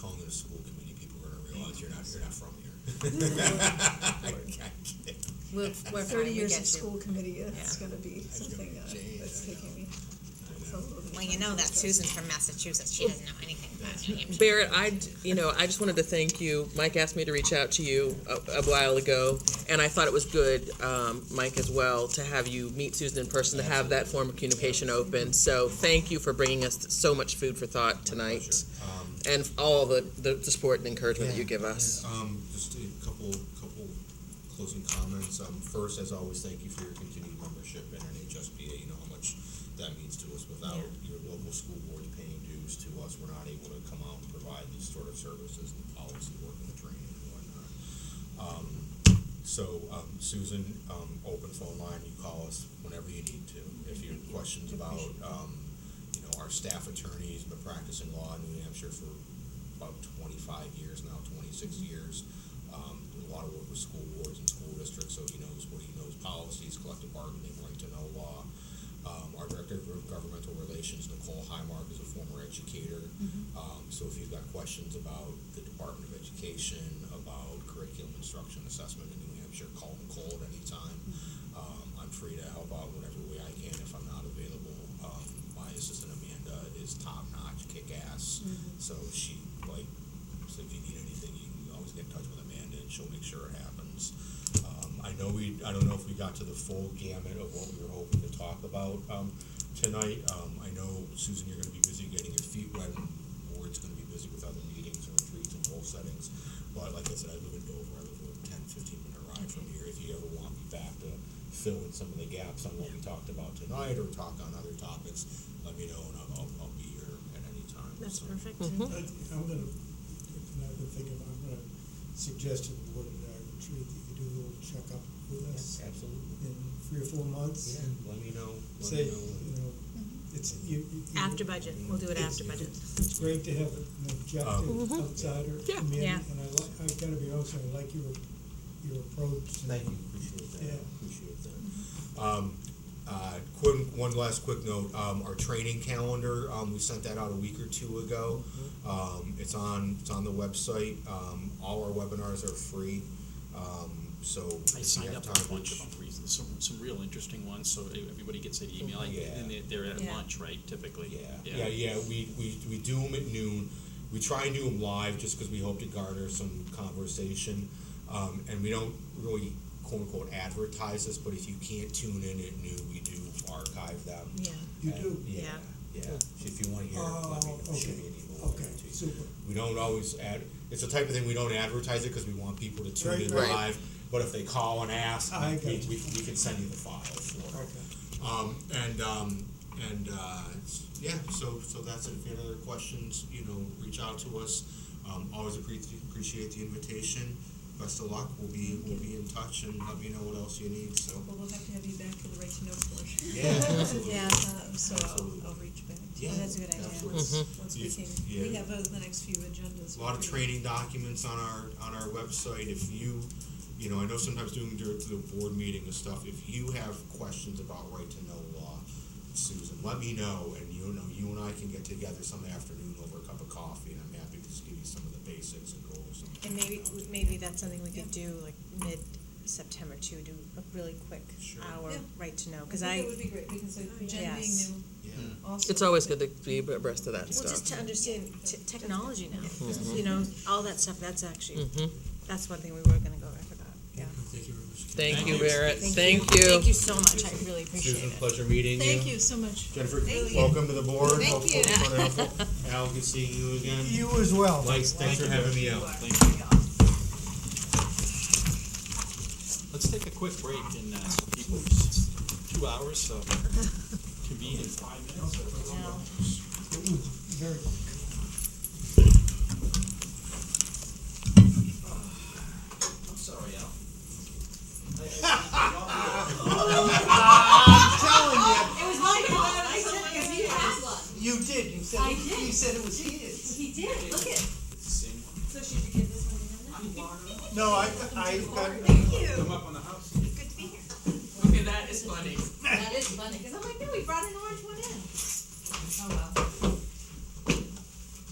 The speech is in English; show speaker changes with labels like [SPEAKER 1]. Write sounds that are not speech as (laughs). [SPEAKER 1] calling it a school committee, people are gonna realize you're not, you're not from here. (laughs)
[SPEAKER 2] We're, we're fine,
[SPEAKER 3] Thirty
[SPEAKER 2] we
[SPEAKER 3] years
[SPEAKER 2] get
[SPEAKER 3] of
[SPEAKER 2] you.
[SPEAKER 3] school committee, it's
[SPEAKER 2] Yeah.
[SPEAKER 3] gonna be something uh,
[SPEAKER 1] Change,
[SPEAKER 3] that's
[SPEAKER 1] I know.
[SPEAKER 3] taking me. it's a little bit
[SPEAKER 2] Well, you know that Susan's from Massachusetts, she doesn't know anything about New Hampshire.
[SPEAKER 4] Barrett, I, d- you know, I just wanted to thank you. Mike asked me to reach out to you a, a while ago, and I thought it was good, um, Mike, as well, to have you meet Susan in person, to have that form of communication open. So thank you for bringing us so much food for thought tonight,
[SPEAKER 1] Um,
[SPEAKER 4] and all the, the, the support and encouragement that you give us.
[SPEAKER 1] Um, just a couple, couple closing comments. Um, first, as always, thank you for your continued membership in NHSBA. You know how much that means to us. Without your local school boards paying dues to us, we're not able to come out and provide these sort of services and policy work and the training and whatnot. Um, so, um, Susan, um, open phone line, you call us whenever you need to. If you have questions about, um, you know, our staff attorneys, been practicing law in New Hampshire for about twenty-five years now, twenty-six years. Um, did a lot of work with school boards and school districts, so he knows what he knows, policies, collective bargaining, right to know law. Um, our Director of Governmental Relations, Nicole Highmark, is a former educator. Um, so if you've got questions about the Department of Education, about curriculum instruction assessment in New Hampshire, call Nicole at any time. Um, I'm free to help out whatever way I can if I'm not available. Um, my assistant Amanda is top-notch, kick-ass, so she, like, so if you need anything, you can always get in touch with Amanda and she'll make sure it happens. Um, I know we, I don't know if we got to the full gamut of what we were hoping to talk about, um, tonight. Um, I know, Susan, you're gonna be busy getting your feet wet, and Ward's gonna be busy with other meetings and retreats and goal settings. But like I said, I live in Dover, I live a ten, fifteen minute ride from here. If you ever want me back to fill in some of the gaps on what we talked about tonight or talk on other topics, let me know and I'll, I'll, I'll be here at any time.
[SPEAKER 3] That's
[SPEAKER 1] So,
[SPEAKER 3] perfect.
[SPEAKER 5] Mm-hmm.
[SPEAKER 6] I- I'm gonna, if now that I think of, I'm gonna suggest to the board at our retreat that you do a little checkup with us
[SPEAKER 1] Absolutely.
[SPEAKER 6] in three or four months.
[SPEAKER 1] Yeah, let me know, let
[SPEAKER 6] Say,
[SPEAKER 1] me
[SPEAKER 6] you
[SPEAKER 1] know.
[SPEAKER 6] know, it's, you, you.
[SPEAKER 5] Mm-hmm.
[SPEAKER 6] you-
[SPEAKER 3] Mm-hmm. After budget, we'll do it after budget.
[SPEAKER 6] It's great to have an objective outsider
[SPEAKER 4] Yeah.
[SPEAKER 6] come in,
[SPEAKER 3] Mm-hmm. Yeah.
[SPEAKER 6] and I like, I've gotta be honest, I like your, your approach.
[SPEAKER 1] Thank you, appreciate that,
[SPEAKER 6] Yeah.
[SPEAKER 1] appreciate that. Um, uh, quick, one last quick note, um, our training calendar, um, we sent that out a week or two ago.
[SPEAKER 7] Mm-hmm.
[SPEAKER 1] Um, it's on, it's on the website, um, all our webinars are free, um, so. if
[SPEAKER 7] I
[SPEAKER 1] you
[SPEAKER 7] signed
[SPEAKER 1] have
[SPEAKER 7] up for
[SPEAKER 1] time,
[SPEAKER 7] a bunch of
[SPEAKER 1] which-
[SPEAKER 7] them, reasons- some, some real interesting ones, so e, everybody gets an email, and
[SPEAKER 1] Yeah.
[SPEAKER 7] they're- they're at
[SPEAKER 3] Yeah.
[SPEAKER 7] lunch, right, typically?
[SPEAKER 1] Yeah, yeah, yeah. We, we, we do them at noon. We try and do them live just because we hope to garner some conversation. Um, and we don't really quote unquote advertise this, but if you can't tune in at noon, we do archive them.
[SPEAKER 3] Yeah.
[SPEAKER 6] You
[SPEAKER 1] And-
[SPEAKER 6] do?
[SPEAKER 1] Yeah. Yeah. If you want to hear, it, let me know.
[SPEAKER 6] Oh,
[SPEAKER 1] Shoot
[SPEAKER 6] okay.
[SPEAKER 1] me an email. I'll
[SPEAKER 6] Okay,
[SPEAKER 1] get it to you.
[SPEAKER 6] super.
[SPEAKER 1] We don't always ad. It's the type of thing we don't advertise it because we want people to tune
[SPEAKER 6] Right,
[SPEAKER 1] in
[SPEAKER 4] right.
[SPEAKER 1] live. But if they call and ask,
[SPEAKER 6] I
[SPEAKER 1] we,
[SPEAKER 6] got
[SPEAKER 1] we,
[SPEAKER 6] you.
[SPEAKER 1] we can send you the file for it.
[SPEAKER 6] Okay.
[SPEAKER 1] Um, and, um, and, uh, it's- yeah, so, so that's it. If you have other questions, you know, reach out to us. Um, always appreciate, appreciate the invitation. Best of luck. We'll be, we'll be in touch and let me know what else you need,
[SPEAKER 3] (laughs)
[SPEAKER 1] so.
[SPEAKER 3] Well, we'll have to have you back for the right to know portion.
[SPEAKER 1] Yeah, absolutely.
[SPEAKER 3] Yeah, um, so
[SPEAKER 1] Absolutely.
[SPEAKER 3] I'll, I'll reach back. to you.
[SPEAKER 1] Yeah,
[SPEAKER 3] That's a good idea.
[SPEAKER 1] absolutely.
[SPEAKER 3] Once we
[SPEAKER 1] You-
[SPEAKER 3] can, we
[SPEAKER 1] yeah.
[SPEAKER 3] have uh, the next few agendas.
[SPEAKER 1] A lot of
[SPEAKER 3] we'll-
[SPEAKER 1] training documents on our, on our website. If you, you know, I know sometimes doing during the board meeting and stuff, if you have questions about right to know law, Susan, let me know and you know, you and I can get together some afternoon over a cup of coffee and I'm happy to just give you some of the basics and go over some. of
[SPEAKER 5] And
[SPEAKER 1] the
[SPEAKER 5] maybe,
[SPEAKER 1] technology.
[SPEAKER 5] maybe that's something we could do like mid-September too, do a really quick
[SPEAKER 1] Sure.
[SPEAKER 5] hour
[SPEAKER 3] Yeah.
[SPEAKER 5] right to know,
[SPEAKER 3] I
[SPEAKER 5] cause
[SPEAKER 3] think
[SPEAKER 5] I,
[SPEAKER 3] That would be great, because uh, Jen being
[SPEAKER 5] Yes.
[SPEAKER 3] new
[SPEAKER 1] Yeah.
[SPEAKER 3] also.
[SPEAKER 4] Oh, It's always good to be abreast of that
[SPEAKER 5] well, just
[SPEAKER 4] stuff.
[SPEAKER 5] to understand t- technology now, you know, all that stuff, that's actually,
[SPEAKER 4] Mm-hmm.
[SPEAKER 5] that's one thing we were gonna go over about, yeah.
[SPEAKER 4] Thank
[SPEAKER 7] Thank
[SPEAKER 4] you,
[SPEAKER 7] you.
[SPEAKER 4] Barrett. Thank
[SPEAKER 5] Thank
[SPEAKER 4] you.
[SPEAKER 5] you so much, I really appreciate
[SPEAKER 1] Susan,
[SPEAKER 5] it.
[SPEAKER 1] pleasure meeting you.
[SPEAKER 3] Thank you so much.
[SPEAKER 1] Jennifer,
[SPEAKER 3] Thank you.
[SPEAKER 1] welcome to the board.
[SPEAKER 3] Thank
[SPEAKER 1] Hopefully
[SPEAKER 3] you.
[SPEAKER 1] it's been helpful. Al, good seeing you again.
[SPEAKER 6] You as well.
[SPEAKER 1] Mike, thanks for having me out.
[SPEAKER 7] Let's take a quick break and, uh, so people, it's two hours, so convene in five minutes.
[SPEAKER 6] It was very.
[SPEAKER 7] I'm sorry,
[SPEAKER 8] It was
[SPEAKER 7] Al.
[SPEAKER 8] my fault. I said because he had one.
[SPEAKER 6] You did, you said,
[SPEAKER 8] I did. you
[SPEAKER 6] said it was his.
[SPEAKER 8] He did. Look at.
[SPEAKER 7] Sing.
[SPEAKER 8] So should you give this one to him now?
[SPEAKER 6] No, I, I, I,
[SPEAKER 7] Come up on the house.
[SPEAKER 8] Good to be here.
[SPEAKER 9] Okay, that is funny.
[SPEAKER 8] That is funny because I'm like, no, we brought an orange one in. Oh well.